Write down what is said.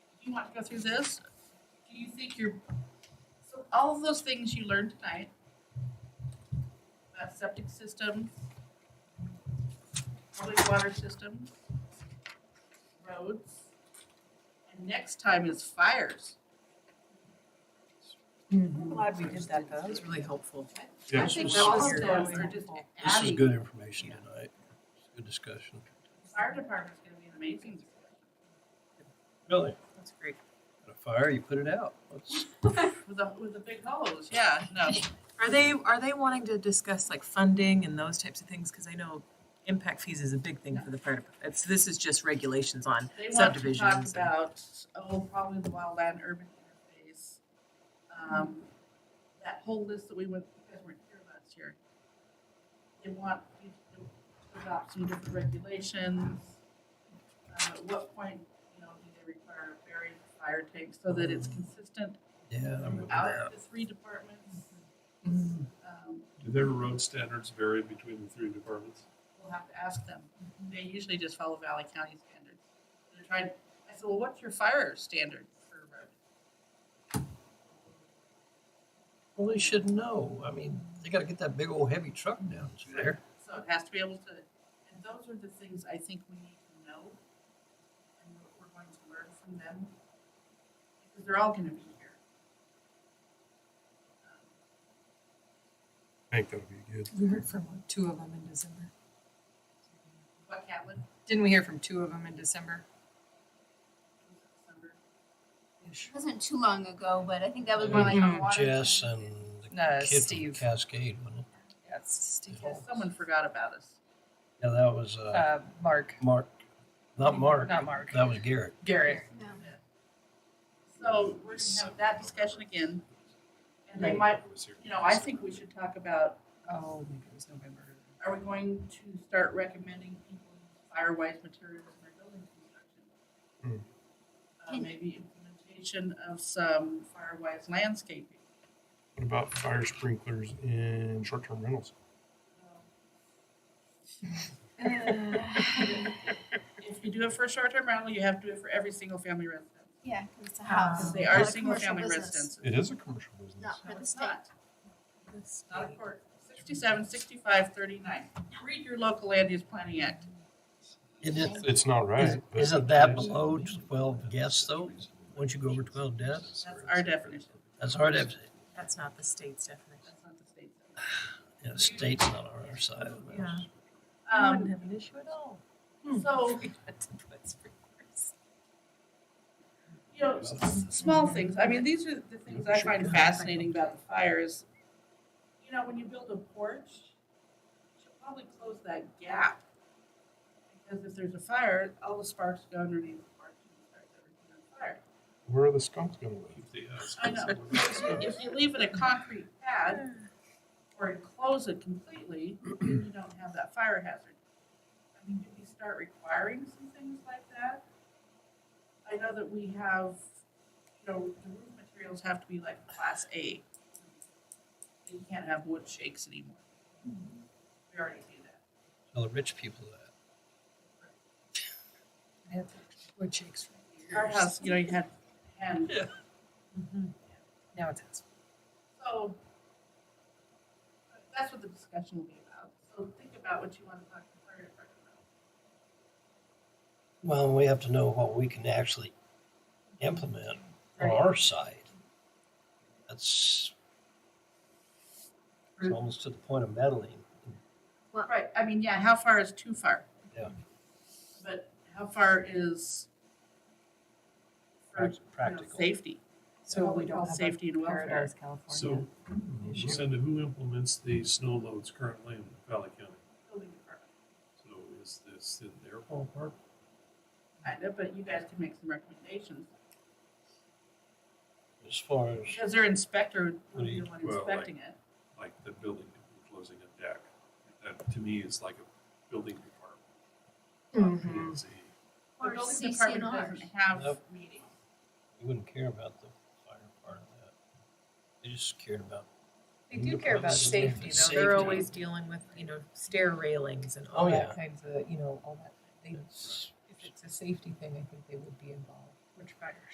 you want to go through this, do you think you're, so all of those things you learned tonight, about septic system, public water system, roads, and next time is fires. I'm glad we did that, though. That was really helpful. I Yes, think this that all was- is- of those are just this is adding, good information Yeah. tonight. It's a Good discussion. fire department's gonna be an amazing. Really? That's great. A fire, you put it out. Let's- With the, with the big hose, yeah, no, Are they, are they wanting to discuss like funding and those types of things? Because I know impact fees is a big thing for the fire department. It's, this is just regulations on They want to talk Subdivisions and- about, oh, probably the wildland urban interface. Um, that whole list that we went, you guys weren't here last year. They want you to adopt some different regulations. Um, at what point, you know, do they require a buried fire tank so that it's consistent Yeah, I'm with out that. of the three departments? Um, Do their road standards vary between the three departments? we'll have to ask them. They usually just follow Valley County standards. They're trying, I said, well, what's your fire standard for a road? Well, they should know. I mean, they gotta get that big old heavy truck down through there. So it has to be able to, and those are the things I think we need to know and what we're going to learn from them. Because they're all gonna be here. Um, I think that would be good. We heard from two of them in December. What Catlin, Didn't we hear from two of them in December? December, It wasn't too long ago, but I think that was more like Mhm. a water. Mm-hmm. Jess and the No, kid from Steve. Cascade, wasn't it? Yes, Steve. yeah, someone forgot about us. Yeah, that was, uh, Uh, Mark, Mark, not Mark. Uh, Not Mark. That was Garrett. Garrett. No. So we're gonna have that discussion again. And they might, you know, I think we should talk about, Oh, maybe it was November. are we going to start recommending people use firewise materials in their building construction? Uh, Can- maybe implementation of some firewise landscaping. What about fire sprinklers in short-term rentals? Uh. If you do it for a short-term rental, you have to do it for every single family residence. Yeah, 'cause it's a house. Because Ah, they not are a single-family Oh. commercial business, residences. It is a commercial business. Not for No, the it's state. not. It's not a court. Sixty-seven, sixty-five, thirty-nine. Read your local land use planning act. Isn't it- It's not right. Isn't but- isn't that below twelve deaths though? Once you go over twelve deaths, That's our definition. that's hard. to- That's not the state's definition. That's not the state's. Yeah, state's not on our side. of it. Yeah. Um, have an issue at all. so, you know, s- s- small things. I mean, these are the things I find fascinating about the fires. You know, when you build a porch, you should probably close that gap. Because if there's a fire, all the sparks go underneath the porch and starts everything on fire. Where are the uh, skunks gonna live? I know. If you leave it a concrete pad or enclose it completely, you don't have that fire hazard. I mean, do we start requiring some things like that? I know that we have, you know, the roof materials have to be like class A. You can't have wood shakes anymore. We already do that. Tell the rich people that. Wood shakes. Our house, you know, you had Mm-hmm. hand Now it's us. So that's what the discussion will be about. So think about what you want to talk to the fire department about. Well, we have to know what we can actually implement on our side. That's it's almost to the point of meddling. Right, I mean, yeah, how far is too far? Yeah. But how far is for, you Prac- know, Practical. safety? So What we don't call have a Safety and welfare. Paradise, California. So, Lucinda, who implements the snow loads currently in Valley County? building department. So is this in their ballpark? Kind of, but you guys can make some recommendations. As far as Because their inspector would be the one Well, like- inspecting it. Like the building enclosing a deck? That to me is like a building Mm-hmm. department. Not me as a- The Or building department CCNRs. doesn't have Nope. meetings. you wouldn't care about the fire part of that. They just cared about They do care about safety though. They're Safety. always dealing with, you know, stair railings and Oh, all yeah. that kinds of, you know, all that. They, it's if it's a safety thing, I think they would be involved. Which fire?